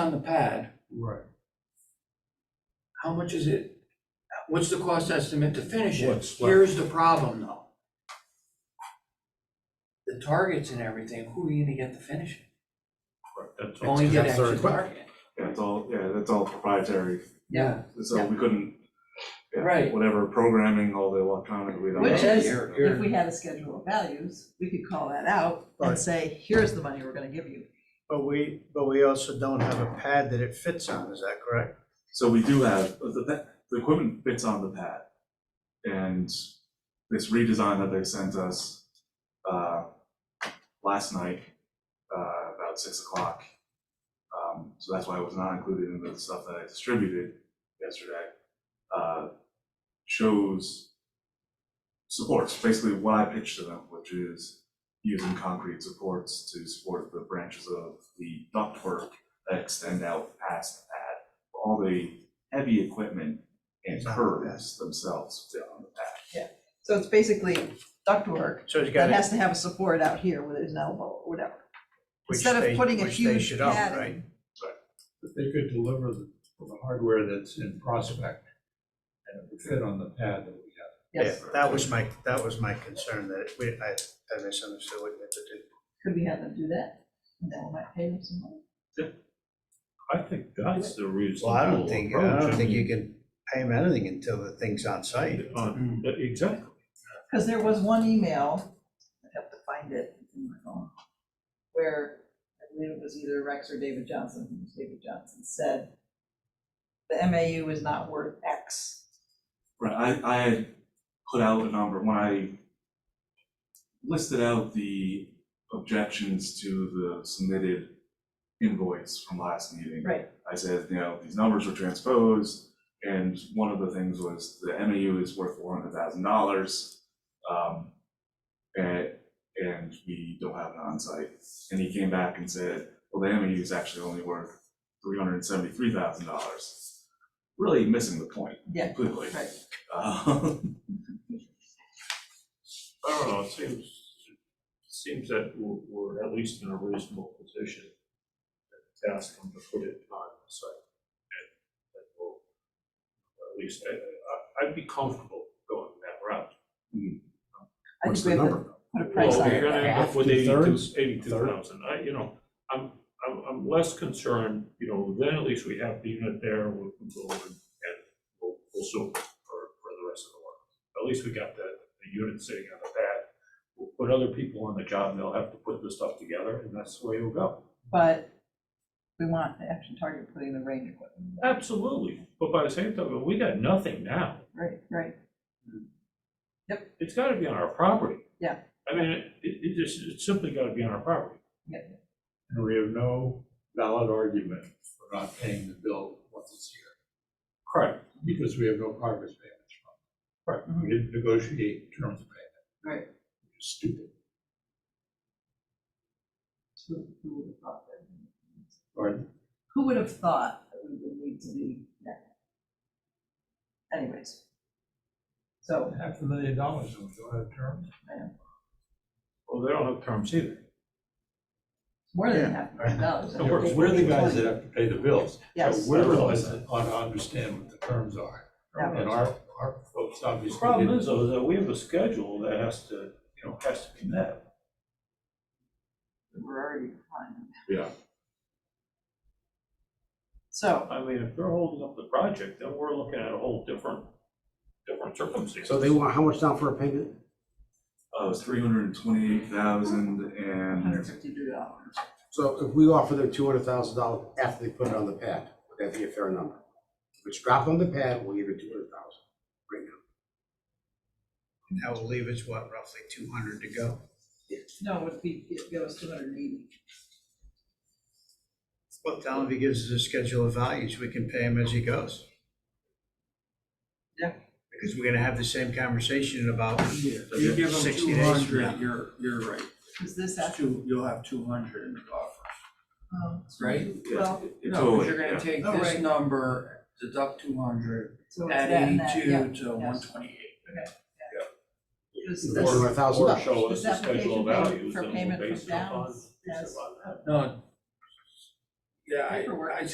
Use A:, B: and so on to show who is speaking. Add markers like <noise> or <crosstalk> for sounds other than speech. A: on the pad,
B: Right.
A: how much is it? What's the cost estimate to finish it?
B: What's left?
A: Here's the problem though. The targets and everything, who are you gonna get to finish it?
B: That's-
A: Only
B: that's
A: get
B: their
A: extra
B: equipment.
A: target.
C: Yeah, it's all, yeah, that's all proprietary,
A: Yeah,
C: so
A: Yeah.
C: we couldn't. yeah,
A: Right.
C: Whatever programming, all the electronic, we don't.
A: which
C: know.
A: is, you're,
D: If
A: you're,
D: we had a schedule of values, we could call that out
E: Right.
D: and say, here's the money we're gonna give you.
E: But we, but we also don't have a pad that it fits on, is that correct?
C: So we do have, but the, pa- the equipment fits on the pad. And this redesign that they sent us, uh, last night, uh, about six o'clock. Um, so that's why it was not included in the stuff that I distributed yesterday, uh, shows supports, basically what I pitched to them, which is using concrete supports to support the branches of the ductwork that extend out past the pad all the heavy equipment and
E: It's not
C: curves themselves fit on the pad.
D: So it's basically ductwork
E: So it's got
D: that
E: a
D: has to have a support out here with an elbow or whatever.
E: which
D: Instead
E: they-
D: of putting a
E: which they
D: huge
E: should own,
D: pad
E: right?
D: in.
B: But They could deliver the, the hardware that's in Prospect and it would fit on the pad that we have.
E: Yeah,
D: Yes,
E: that was my, that was my concern, that it- we, I, I misunderstood what you had to do.
D: could we have them do that? And then we might pay them some money.
F: I think that's the reasonable
E: Well, I don't think, I
F: approach.
E: don't think you
F: mean,
E: can pay them anything until the thing's on site.
F: on- Uh, Exactly.
D: Because there was one email, I have to find it in my phone, where I believe it was either Rex or David Johnson, it was David Johnson, said, the MAU is not worth X.
C: Right, I, I had put out a number, when I listed out the objections to the submitted invoice from last meeting.
D: Right.
C: I said, you know, these numbers were transposed, and one of the things was the MAU is worth four hundred thousand dollars. Um, and, and we don't have an onsite. And he came back and said, well, the MAU is actually only worth three hundred and seventy-three thousand dollars. Really missing the point
D: Yeah,
C: completely.
D: right.
C: Um,
F: I don't know, it seems, it seems that we're, we're at least in a reasonable position to ask them to put it on the site. And, and we'll, at least, I, I, I'd be comfortable going that route.
D: I
C: What's
D: think we
C: the
D: have to
C: number?
D: put a price
F: Well,
D: on
F: you're
D: it.
F: gonna end up with eighty-two,
B: Two-thirds?
F: eighty-two thousand, I, you know, I'm, I'm, I'm less concerned, you know, then at least we have the unit there, we'll we'll go and, and we'll, we'll sue for, for the rest of the work. At least we got the, the unit sitting on the pad, we'll put other people on the job, they'll have to put the stuff together, and that's the way it'll go.
D: But we want the action target putting the range equipment,
F: Absolutely, but by the same token, we got nothing now,
D: right, right,
F: it's gotta be on our property.
D: Yeah.
F: I mean, it, it just, it's simply gotta be on our property.
D: yeah.
B: And we have no valid argument for not paying the bill once it's here,
F: Correct.
B: because we have no progress payments from it.
D: Mhm.
B: We didn't negotiate terms of payment.
D: Right.
B: Stupid.
D: Who who would have thought that?
B: Or
D: Who would have thought that we would need to be that? Anyways. So,
B: half a million dollars, and we don't have terms.
F: Well, they don't have terms either.
D: more than
E: Yeah.
D: half a million dollars.
B: So we're, we're the guys that have to pay the bills.
D: Yes.
B: But We're the ones that ought to understand what the terms are.
D: Yeah.
B: And our, our folks
F: The
B: obviously didn't.
F: problem is though, that we have a schedule that has to, you know, has to be met.
D: We're already behind.
C: Yeah.
D: So,
F: I mean, if they're holding up the project, then we're looking at a whole different, different circumstance.
G: So they want, how much down for a payment?
C: <laughs> Uh, it was three hundred and twenty-eight thousand
D: hundred
C: and,
D: fifty two dollars.
G: So if we offer them two hundred thousand dollars after they put it on the pad, would that be a fair number? If it's dropped on the pad, we'll give it two hundred thousand right now.
E: Now we'll leave it's what, roughly two hundred to go?
D: No, it would be, it goes two hundred and eighty.
E: Well, tell him if he gives us a schedule of values, we can pay him as he goes.
D: Yeah.
E: Because we're gonna have the same conversation in about
A: if you give them
E: 60
A: two
E: days from now.
A: hundred, you're, you're right,
D: Is this
A: It's
D: after?
A: two, you'll have two hundred in the buffer,
D: um,
A: right?
C: yeah,
D: Well,
C: it-
A: No,
C: it
A: because
C: totally,
A: you're
C: yeah.
A: gonna take
D: Oh,
A: this
D: right.
A: number, deduct two hundred,
D: so it's
A: add
D: that and that, yeah.
A: eighty-two to one twenty-eight.
D: Is
G: Four
D: this,
G: hundred thousand
F: Or
G: dollars.
F: show us
D: this
F: the schedule
D: application paid
F: of values
D: for
F: and we'll
D: payment
F: base
D: from
F: it upon.
D: Downs
F: base it
D: as
F: upon that.
A: No. Yeah, I,
D: Paperwork.
A: I